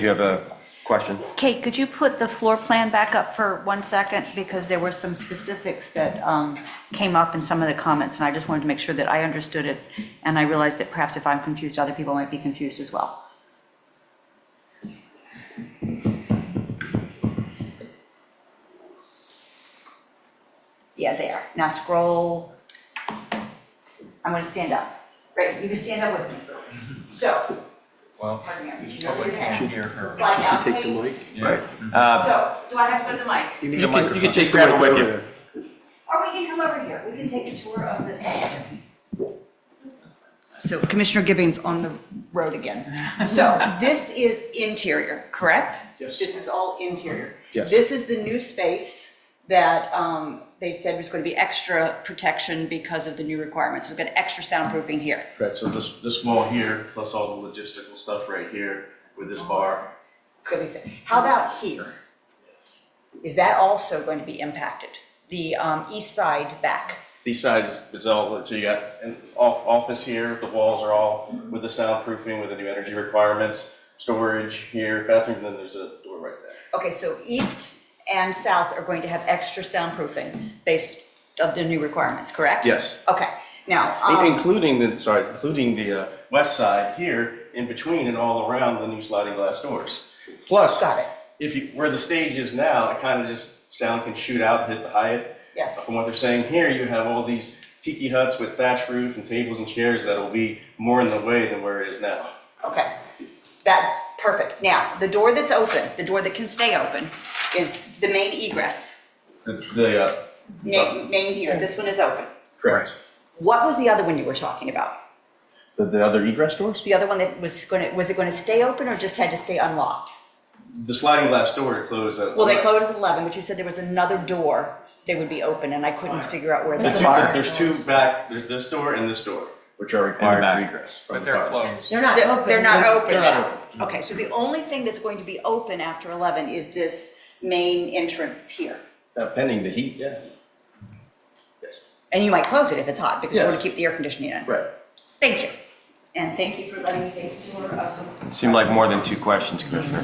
Do you have a question? Kate, could you put the floor plan back up for one second? Because there were some specifics that um, came up in some of the comments, and I just wanted to make sure that I understood it. And I realized that perhaps if I'm confused, other people might be confused as well. Yeah, there. Now scroll. I'm going to stand up. Great, you can stand up with me. So, Well, pardon me, I reached over public your can't hand. hear her. Slide down, Take the Kate. mic. Mm-hmm. Uh, So, do I have to put the mic? Your You can- You microphone. can take the Grab it mic with over you. there. Or we can come over here, we can take a tour of this property. So Commissioner Gibbings on the road again. So this is interior, correct? Yes. This is all interior. Yes. This is the new space that um, they said was going to be extra protection because of the new requirements. We've got extra soundproofing here. Right, so this, this wall here, plus all the logistical stuff right here with this bar. It's going to be, how about here? Is that also going to be impacted? The um, east side back? These sides, it's all, so you got an off, office here, the walls are all with the soundproofing, with the new energy requirements, storage here, bathroom, and then there's a door right there. Okay, so east and south are going to have extra soundproofing based of the new requirements, correct? Yes. Okay, now, In- um, Including the, sorry, including the, uh, west side here, in between and all around the new sliding glass doors. Plus, Got it. if you, where the stage is now, it kind of just, sound can shoot out and hit the Hyatt. yes, From what they're saying here, you have all these tiki huts with thatch roof and tables and chairs that'll be more in the way than where it is now. okay. That, perfect. Now, the door that's open, the door that can stay open is the main egress, The, the, uh, main, main here, this one is open. correct. What was the other one you were talking about? The, the other egress doors? The other one that was gonna, was it gonna stay open or just had to stay unlocked? The sliding glass door closed. uh, Well, they closed at eleven, but you said there was another door that would be open and I couldn't figure out where There's that two, fire. there's two back, there's this door and this door, which are required back. for egress. from But the they're fire. closed. They're not They're, open. they're not open they're not now. Okay, so the only thing that's going to be open after 11 is this main entrance here. Uh, Pending the heat, yeah. Yes. And you might close it if it's hot because you want to Yes. keep the air conditioning in. Right. Thank you. And thank you for letting me take the tour of the. Seemed like more than two questions, Commissioner.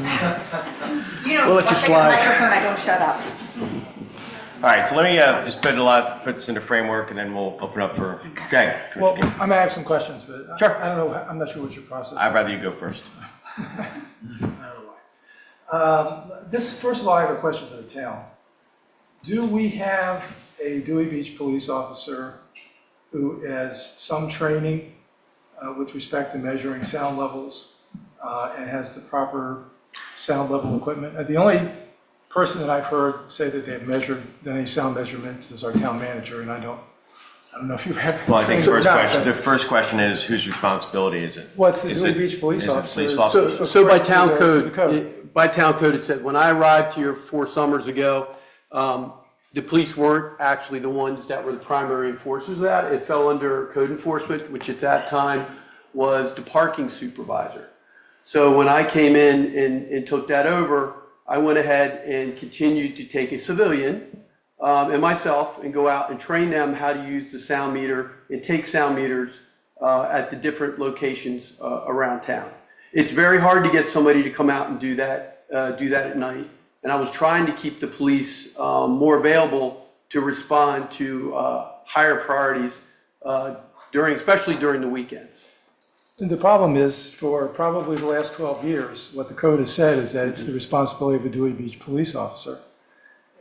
You know, We'll let once you I get slide. the microphone, I don't shut up. All right, so let me uh, just put a lot, put this into framework, and then we'll open up for, okay. Commissioner Well, Gibbons. I may have some questions, but I- Sure. I don't know, I'm not sure what your process I'd rather you go first. is. This, first of all, I have a question for the town. Do we have a Dewey Beach police officer who has some training uh, with respect to measuring sound levels uh, and has the proper sound level equipment? Uh, The only person that I've heard say that they've measured any sound measurements is our town manager, and I don't, I don't know if you have. Well, I think training or first not, question, the but- first question is whose responsibility is it? Well, it's the Is Dewey it- Beach police is it the officer. police So- officer? So, so by Correct, to the- town to the code, code. it- by town code, it said, when I arrived here four summers ago, um, the police weren't actually the ones that were the primary enforcers of that. It fell under code enforcement, which at that time was the parking supervisor. So when I came in and, and took that over, I went ahead and continued to take a civilian um, and myself and go out and train them how to use the sound meter and take sound meters uh, at the different locations uh, around town. It's very hard to get somebody to come out and do that, uh, do that at night. And I was trying to keep the police um, more available to respond to uh, higher priorities uh, during, especially during the weekends. And The problem is, for probably the last 12 years, what the code has said is that it's the responsibility of a Dewey Beach police officer.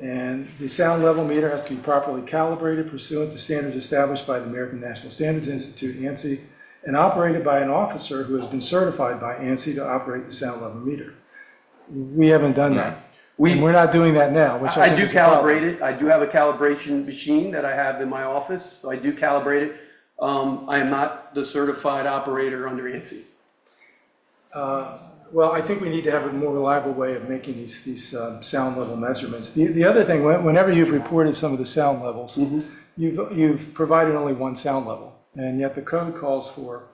And the sound level meter has to be properly calibrated pursuant to standards established by the American National Standards Institute, ANSI, and operated by an officer who has been certified by ANSI to operate the sound level meter. We haven't done that. And we're not doing that now, which I I think do is a problem. calibrate it. I do have a calibration machine that I have in my office, so I do calibrate it. Um, I am not the certified operator under ANSI. Well, I think we need to have a more reliable way of making these, these uh, sound level measurements. The, the other thing, when- whenever you've reported some of the sound levels, Mm-hmm. you've, you've provided only one sound level, and yet the code calls for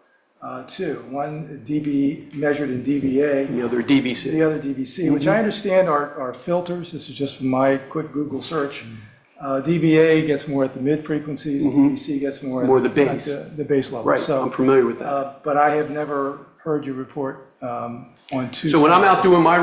uh, two, one dB measured in dBA, The other DVC. the other Mm-hmm. DVC, which I understand are, are filters, this is just from my quick Google search. Mm-hmm. Uh, DBA gets more at the mid frequencies, DVC gets more. at- More the at bass. The the bass level. Right, So- I'm familiar with that. uh, but I have never heard you report um, on Tuesday. So when I'm out doing my